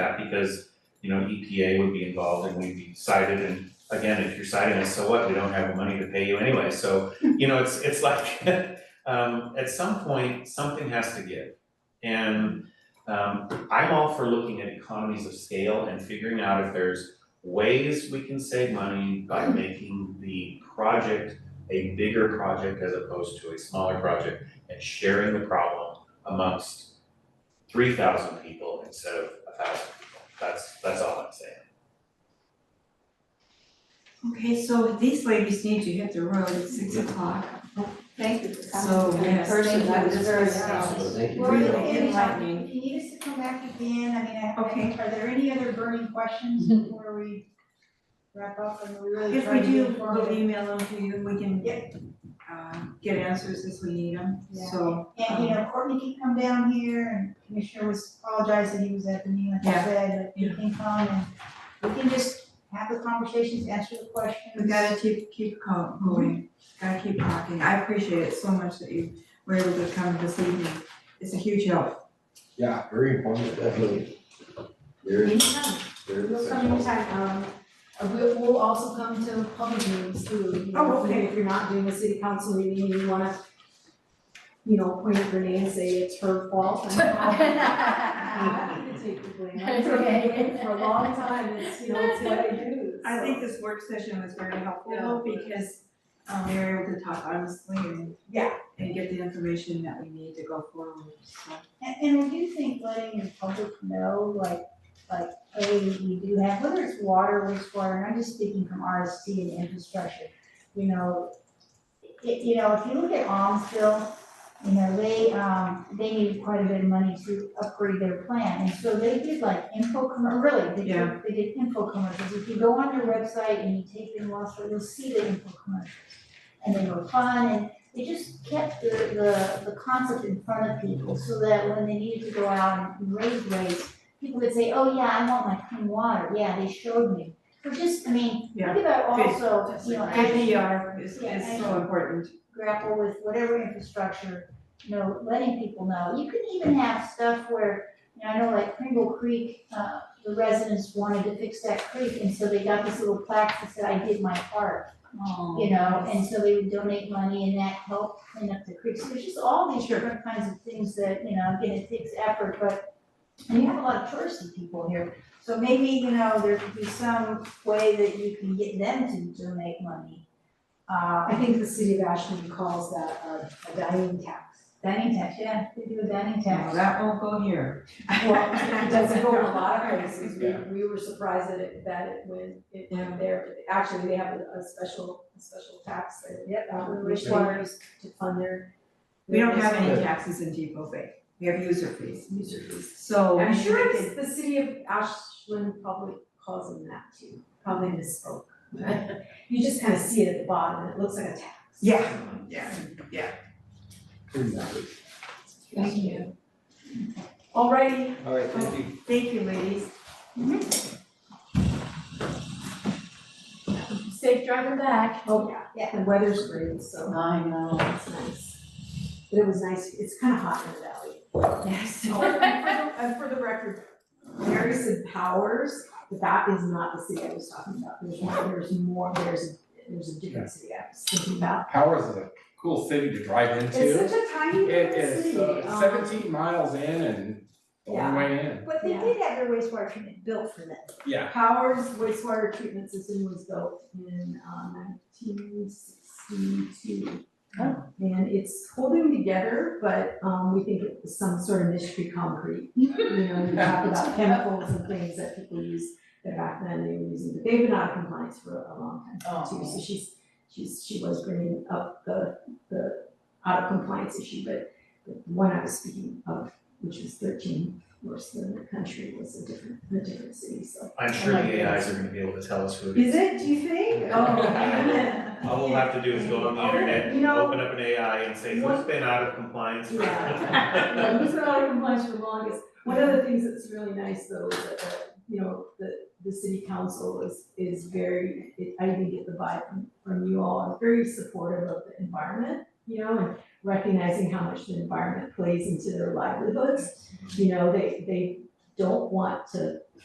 that because, you know, EPA would be involved and we'd be cited and again, if you're citing us, so what, we don't have the money to pay you anyway, so, you know, it's, it's like, um, at some point, something has to give. And, um, I'm all for looking at economies of scale and figuring out if there's ways we can save money by making the project a bigger project as opposed to a smaller project and sharing the problem amongst three thousand people instead of a thousand people. That's, that's all I'm saying. Okay, so these ladies need to hit the road at six o'clock. Thank you for So, coming to the yes, first thank and that you. was very helpful. Absolutely, thank you. Lori, Really if you have- enlightening. if you need us to come back again, I mean, I, Okay. are there any other burning questions before we wrap up and we really If try we to do, move forward? we'll email them to you, we can uh, get answers as we need them, Yeah. so. And, you know, Courtney can come down here and Commissioner was apologized that he was at the meeting, like I Yeah. said, but he Yeah. can come and we can just have the conversations, answer the questions. We gotta keep, keep co- going, gotta keep talking. I appreciate it so much that you were able to come this evening. It's a huge help. Yeah, very informative, definitely. Very, Anytime, very. we'll come anytime, um, uh, we'll, we'll also come to public meetings too, you Oh, know, okay. if you're not doing a city council meeting, you wanna, you know, point at Renee and say it's her fault, and I'm happy to take the blame, I've been doing it for a long time, it's, you know, it's what I do, I so. think this work session was very helpful because um, we were able to talk honestly and. Yeah. And get the information that we need to go forward, so. And, and I do think letting the public know, like, like, hey, we do have, whether it's water, wastewater, and I'm just speaking from RSC and infrastructure, you know, it, you know, if you look at Almsville, you know, they, um, they needed quite a bit of money to upgrade their plant, and so they did like info commer, really, they Yeah. did, they did info commercials. If you go on their website and you take the Wausau, you'll see the info commercials. And they were fun, and they just kept the, the, the concept in front of people so that when they needed to go out and raise rates, people would say, oh yeah, I want my clean water, yeah, they showed me. So just, I mean, Yeah. think about Good. also, you know, as you IPR is, Yeah, is I so know. important. grapple with whatever infrastructure, you know, letting people know. You can even have stuff where, you know, I know like Pringle Creek, uh, the residents wanted to fix that creek, and so they got this little plaque that said, I did my part. you know, and so they would donate money and that helped clean up the creeks. There's just all these different kinds of things that, you know, again, it takes effort, but and you have a lot of touristy people here, so maybe, you know, there could be some way that you can get them to donate money. I Uh, think the city of Ashland calls that a, a dining tax. dining tax, yeah, they do a dining No, tax. that won't go here. Well, it doesn't go in a lot of places, we, we were surprised that it, that it went, it went there, but actually, they have a, a special, a special tax that, yeah, um, which requires to fund their. We don't have their- any taxes in Depot Bay. We have user fees. User fees. So. I'm sure it's, the city of Ashland probably calls them that too, probably misspoke. You just kind of see it at the bottom, and it looks like a tax. Yeah, yeah. Thank you. Alrighty, All right, thank you. Thank you, ladies. safe driving back. Oh, yeah. Yeah. The weather's great, so. I know. It's nice. But it was nice, it's kind of hot in the valley. Yes. Oh, And for the- and for the record, Mary said Powers, but that is not the city I was talking about. There's one, there's more, there's, there's a different city I was thinking about. Powers is a cool city to drive into. It's such a tiny It little is, city. so it's um, seventeen miles in and the long Yeah. way in, But they did have their wastewater treatment built for them. yeah. Powers wastewater treatment system was built in uh, nineteen sixty-two. And it's holding together, but um, we think it was some sort of mystery concrete. You know, you talk about chemicals and things that people use that back then they were using, but they've been out of compliance for a long time too. So she's, she's, she was bringing up the, the out of compliance issue, but the one I was speaking of, which was thirteen worse than the country, was a different, a different city, so. I'm sure I like the AIs are gonna be able to tell us who it is. Is it, do you think? Oh. All we'll have to do is go on the Oh, internet, you know- open up an AI and say, who's What- been out of compliance for? Yeah, yeah, he's been out of compliance for the longest. One of the things that's really nice though is that, uh, you know, the, the city council is, is very, it- I didn't get the vibe from, from you all, is very supportive of the environment, you know, and recognizing how much the environment plays into their livelihoods. You know, they, they don't want to